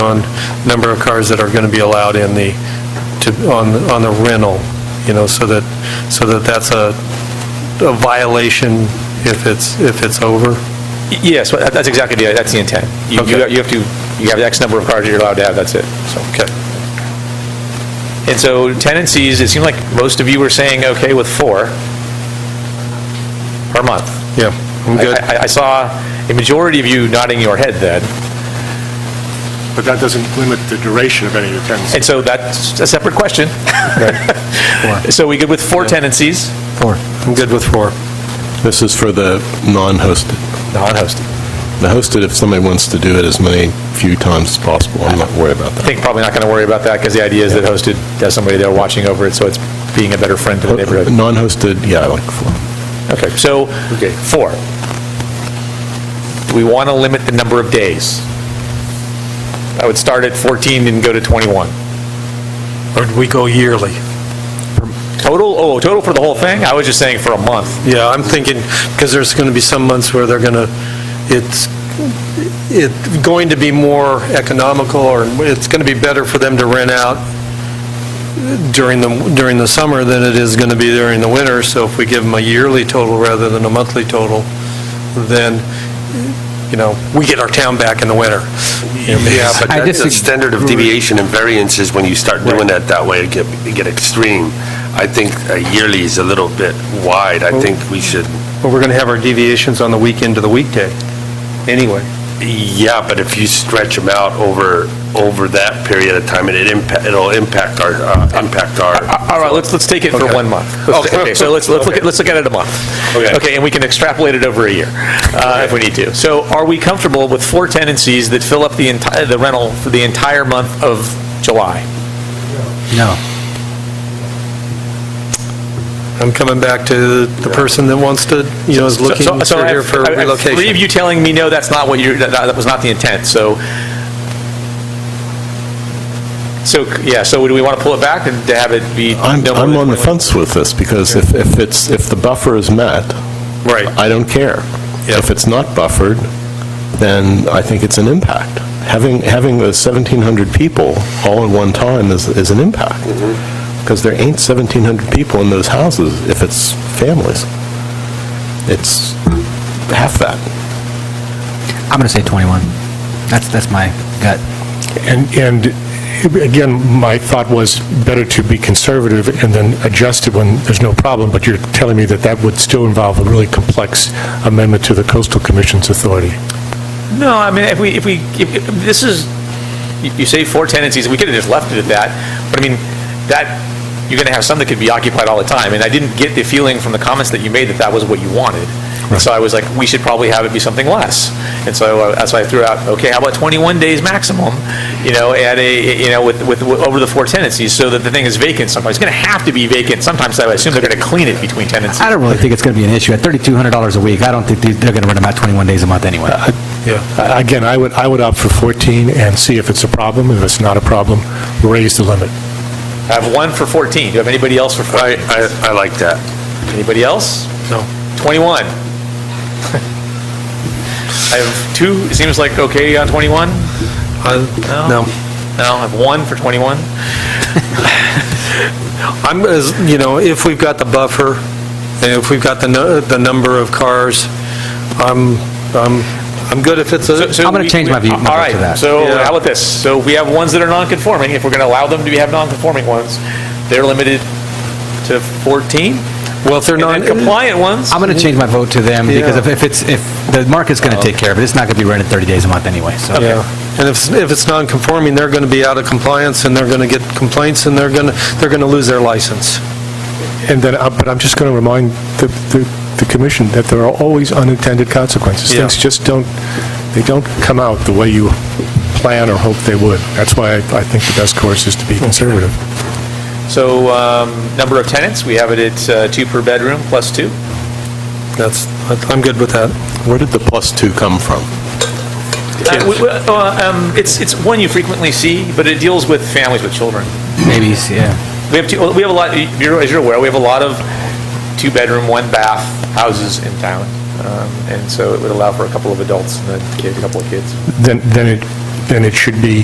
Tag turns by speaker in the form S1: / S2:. S1: on number of cars that are going to be allowed in the, to, on, on the rental, you know, so that, so that that's a, a violation if it's, if it's over.
S2: Yes, well, that- that's exactly the, that's the intent. You you
S1: Okay.
S2: you have to, you have X number of cars you're allowed to have, that's it, so.
S1: Okay.
S2: And so tenancies, it seemed like most of you were saying, okay, with four per month.
S1: Yeah, I'm
S2: I-
S1: good.
S2: I I saw a majority of you nodding your head then,
S3: But that doesn't limit the duration of any of your tenancy.
S2: and so that's a separate question. So we good with four tenancies?
S1: Four. I'm good with four.
S4: This is for the non-hosted.
S2: Non-hosted.
S4: The hosted, if somebody wants to do it as many, few times as possible, I'm not worried about
S2: I
S4: that.
S2: think probably not going to worry about that, because the idea is that hosted has somebody there watching over it, so it's being a better friend to the neighborhood.
S4: Non-hosted, yeah, I like four.
S2: Okay, so, four. We want to limit the number of days. I would start at 14 and go to 21.
S1: Or do we go yearly?
S2: Total, oh, total for the whole thing? I was just saying for a month.
S1: Yeah, I'm thinking, because there's going to be some months where they're going to, it's, it's going to be more economical, or it's going to be better for them to rent out during the, during the summer than it is going to be during the winter, so if we give them a yearly total rather than a monthly total, then, you know, we get our town back in the winter.
S5: Yeah, but that-
S6: I
S5: the
S6: disagree.
S5: standard of deviation and variance is when you start doing that that way, it get, it get extreme. I think uh, yearly is a little bit wide. I think we should,
S1: But we're going to have our deviations on the weekend to the weekday, anyway.
S5: yeah, but if you stretch them out over, over that period of time, it impact, it'll impact our, uh, impact our,
S2: All right, let's, let's take it for
S5: Okay.
S2: one month. Let's-
S5: Okay.
S2: Okay, so let's, let's look, at- let's look at it a month.
S5: Okay.
S2: Okay, and we can extrapolate it over a year, uh, if we need to. So are we comfortable with four tenancies that fill up the entire, the rental for the entire month of July?
S6: No.
S1: I'm coming back to the person that wants to, you know, is looking
S2: So- so- so I
S1: for here
S2: have-
S1: for
S2: I have Three of
S1: relocation.
S2: you telling me, no, that's not what you, that that was not the intent, so, so, yeah, so do we want to pull it back and to have it be?
S4: I'm,
S2: no more
S4: I'm
S2: than
S4: on the
S2: 21?
S4: fence with this, because if, if it's, if the buffer is met,
S1: Right.
S4: I don't care. If it's not buffered, then I think it's an impact. Having, having those 1,700 people all at one time is, is an impact, because there ain't 1,700 people in those houses if it's families. It's half that.
S6: I'm going to say 21. That's, that's my gut.
S3: And, and again, my thought was better to be conservative and then adjust it when there's no problem, but you're telling me that that would still involve a really complex amendment to the Coastal Commission's authority.
S2: No, I mean, if we, if we, if- if- this is, you- you say four tenancies, we could have just left it at that, but I mean, that, you're going to have some that could be occupied all the time, and I didn't get the feeling from the comments that you made that that was what you wanted. And So I was like, we should probably have it be something less. And so uh, that's why I threw out, okay, how about 21 days maximum, you know, at a, you know, with, with, with- over the four tenancies, so that the thing is vacant sometimes. It's going to have to be vacant sometimes, I assume they're going to clean it between tenancies.
S6: I don't really think it's going to be an issue. At $3,200 a week, I don't think these- they're going to rent them out 21 days a month anyway.
S3: Uh, Again, I would, I would opt for 14 and see if it's a problem. If it's not a problem, raise the limit.
S2: I have one for 14. Do you have anybody else for 14?
S5: I, I, I like that.
S2: Anybody else? No. 21. I have two, it seems like okay on 21?
S1: I- No.
S2: Uh, No, I have one for 21.
S1: I'm, as, you know, if we've got the buffer, and if we've got the, nu- the number of cars, I'm, I'm, I'm good if it's a,
S2: So
S6: I'm gonna
S2: we-
S6: change my view- my vote
S2: All
S6: to
S2: right,
S6: that.
S2: so
S1: Yeah.
S2: how about this? So we have ones that are non-conforming, if we're going to allow them to have non-conforming ones, they're limited to 14?
S1: well, if they're
S2: And
S1: not,
S2: then compliant ones?
S6: I'm going to change my vote to them because
S1: Yeah.
S6: if- if it's, if, the market's going to take care of it, it's not going to be rented 30 days a month anyway, so.
S1: yeah. And if, if it's non-conforming, they're going to be out of compliance, and they're going to get complaints, and they're going to, they're going to lose their license.
S3: And then, uh, but I'm just going to remind the, the- the commission that there are always unintended consequences.
S1: Yeah.
S3: Things just don't, they don't come out the way you plan or hope they would. That's why I I think the best course is to be conservative.
S2: So, um, number of tenants, we have it at uh, two per bedroom, plus two.
S1: That's, I'm good with that.
S4: Where did the plus two come from?
S2: Uh, w- w- uh, um, It's, it's one you frequently see, but it deals with families with children.
S6: Maybe, yeah.
S2: We have, two- well, we have a lot, you're- as you're aware, we have a lot of two-bedroom, one-bath houses in town, Um, and so it would allow for a couple of adults and then a kid- a couple of kids.
S3: Then, then it, then it should be